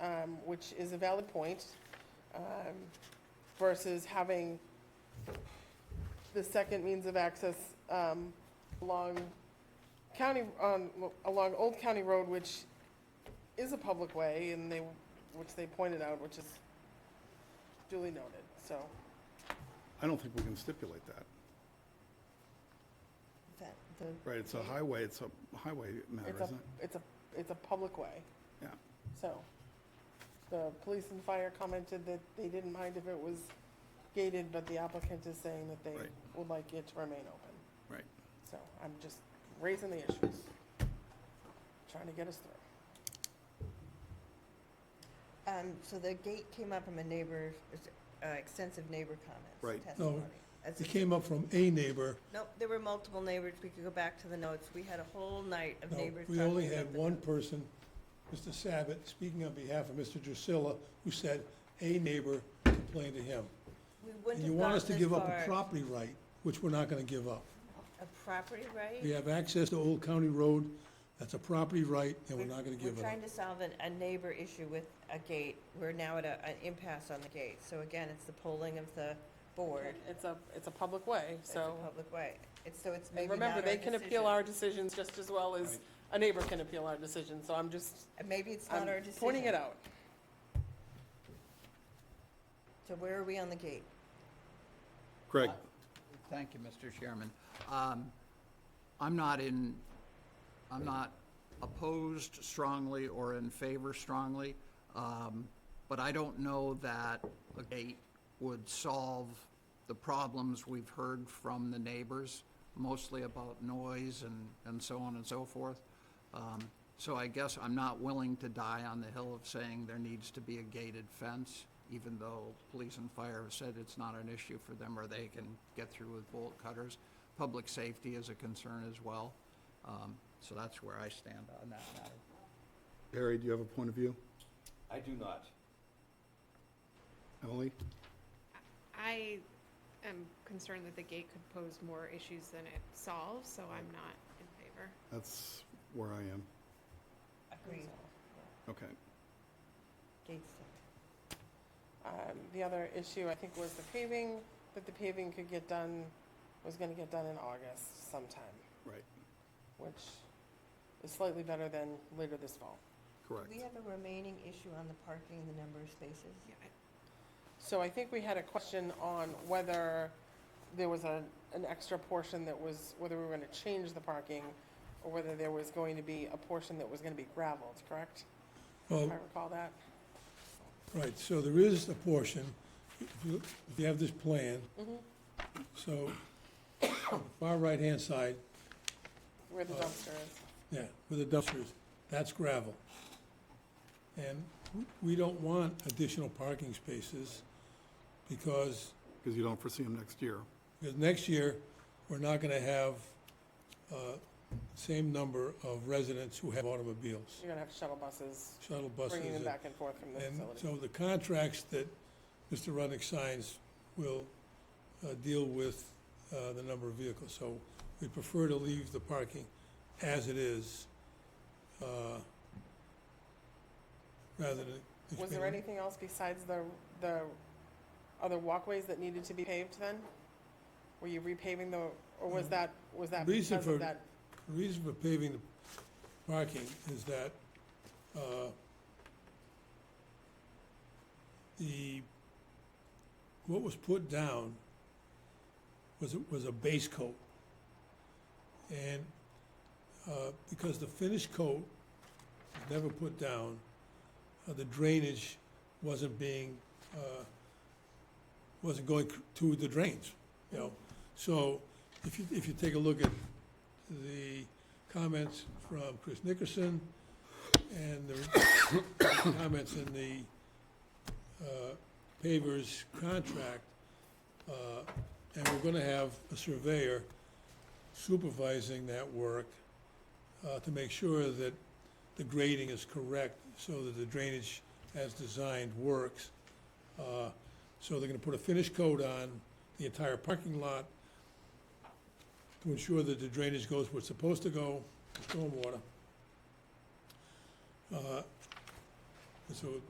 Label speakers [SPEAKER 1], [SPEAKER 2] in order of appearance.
[SPEAKER 1] um, which is a valid point, um, versus having the second means of access um, along county, on, along Old County Road, which is a public way, and they, which they pointed out, which is duly noted, so.
[SPEAKER 2] I don't think we can stipulate that,
[SPEAKER 3] That, the,
[SPEAKER 2] right? It's a highway, it's a highway matter,
[SPEAKER 1] It's a,
[SPEAKER 2] isn't it?
[SPEAKER 1] it's a, it's a public way.
[SPEAKER 2] Yeah.
[SPEAKER 1] So, the police and fire commented that they didn't mind if it was gated, but the applicant is saying that they
[SPEAKER 2] Right.
[SPEAKER 1] would like it to remain open.
[SPEAKER 2] Right.
[SPEAKER 1] So, I'm just raising the issues, trying to get us through.
[SPEAKER 3] um, so the gate came up from a neighbor, uh, extensive neighbor comments.
[SPEAKER 2] Right.
[SPEAKER 4] No,
[SPEAKER 3] testimony. As
[SPEAKER 4] It
[SPEAKER 3] a-
[SPEAKER 4] came up from a neighbor.
[SPEAKER 3] Nope, there were multiple neighbors. We could go back to the notes. We had a whole night of
[SPEAKER 4] No,
[SPEAKER 3] neighbors.
[SPEAKER 4] We only
[SPEAKER 3] talking
[SPEAKER 4] had
[SPEAKER 3] about the-
[SPEAKER 4] one person, Mr. Sabat, speaking on behalf of Mr. Drusilla, who said a neighbor complained to him.
[SPEAKER 3] We
[SPEAKER 4] And
[SPEAKER 3] wouldn't
[SPEAKER 4] you
[SPEAKER 3] have
[SPEAKER 4] want us to
[SPEAKER 3] gotten
[SPEAKER 4] give
[SPEAKER 3] this
[SPEAKER 4] up a
[SPEAKER 3] far.
[SPEAKER 4] property right, which we're not gonna give up.
[SPEAKER 3] A property right?
[SPEAKER 4] We have access to Old County Road, that's a property right, and we're not gonna give
[SPEAKER 3] We're
[SPEAKER 4] it up.
[SPEAKER 3] trying to solve an- a neighbor issue with a gate. We're now at a- an impasse on the gate. So again, it's the polling of the board.
[SPEAKER 1] It's a, it's a public way,
[SPEAKER 3] It's a
[SPEAKER 1] so,
[SPEAKER 3] public way. It's, so it's
[SPEAKER 1] and
[SPEAKER 3] maybe not
[SPEAKER 1] remember,
[SPEAKER 3] our
[SPEAKER 1] they can
[SPEAKER 3] decision.
[SPEAKER 1] appeal our decisions just as well as a neighbor can appeal our decision, so I'm just,
[SPEAKER 3] And Maybe it's
[SPEAKER 1] I'm
[SPEAKER 3] not our decision.
[SPEAKER 1] pointing it out.
[SPEAKER 3] So where are we on the gate?
[SPEAKER 2] Greg,
[SPEAKER 5] Thank you, Mr. Chairman. Um, I'm not in, I'm not opposed strongly or in favor strongly, um, but I don't know that a gate would solve the problems we've heard from the neighbors, mostly about noise and, and so on and so forth. Um, So I guess I'm not willing to die on the hill of saying there needs to be a gated fence, even though police and fire have said it's not an issue for them or they can get through with bolt cutters. Public safety is a concern as well. Um, So that's where I stand on that matter.
[SPEAKER 2] Harry, do you have a point of view?
[SPEAKER 6] I do not.
[SPEAKER 2] Emily?
[SPEAKER 7] I am concerned that the gate could pose more issues than it solves, so I'm not in favor.
[SPEAKER 2] That's where I am.
[SPEAKER 3] Agreed.
[SPEAKER 2] Okay.
[SPEAKER 3] Gates.
[SPEAKER 1] Um, The other issue, I think, was the paving, that the paving could get done, was gonna get done in August sometime.
[SPEAKER 2] Right.
[SPEAKER 1] Which is slightly better than later this fall.
[SPEAKER 3] Do
[SPEAKER 2] Correct.
[SPEAKER 3] we have a remaining issue on the parking and the number of spaces?
[SPEAKER 7] Yeah, I-
[SPEAKER 1] So I think we had a question on whether there was a, an extra portion that was, whether we were gonna change the parking, or whether there was going to be a portion that was gonna be gravelled, correct? If
[SPEAKER 4] Well,
[SPEAKER 1] I recall that.
[SPEAKER 4] right, so there is a portion, if you, if you have this plan.
[SPEAKER 3] Mm-hmm.
[SPEAKER 4] So, far right-hand side,
[SPEAKER 1] Where
[SPEAKER 4] Uh,
[SPEAKER 1] the dumpster is.
[SPEAKER 4] Yeah, with the dumpsters, that's gravel. And w- we don't want additional parking spaces because,
[SPEAKER 2] Because you don't foresee them next year.
[SPEAKER 4] because next year, we're not gonna have, uh, same number of residents who have automobiles,
[SPEAKER 1] You're gonna have shuttle buses,
[SPEAKER 4] shuttle buses.
[SPEAKER 1] bringing them
[SPEAKER 4] and-
[SPEAKER 1] back and forth from the
[SPEAKER 4] and
[SPEAKER 1] facility.
[SPEAKER 4] so the contracts that Mr. Runnick signs will uh, deal with uh, the number of vehicles. So we prefer to leave the parking as it is, uh, rather than.
[SPEAKER 1] Was there anything else besides the, the other walkways that needed to be paved then? Were you repaving the, or was that, was that
[SPEAKER 4] Reason
[SPEAKER 1] because of
[SPEAKER 4] for-
[SPEAKER 1] that?
[SPEAKER 4] The reason for paving the parking is that uh, the, what was put down was, a- was a base coat. And uh, because the finished coat was never put down, uh, the drainage wasn't being, uh, wasn't going c- to the drains, you know? So if you, if you take a look at the comments from Chris Nickerson and the comments in the uh, pavers contract. uh, And we're gonna have a surveyor supervising that work uh, to make sure that the grading is correct so that the drainage as designed works. Uh, So they're gonna put a finish coat on the entire parking lot to ensure that the drainage goes where it's supposed to go, stormwater. Uh, and So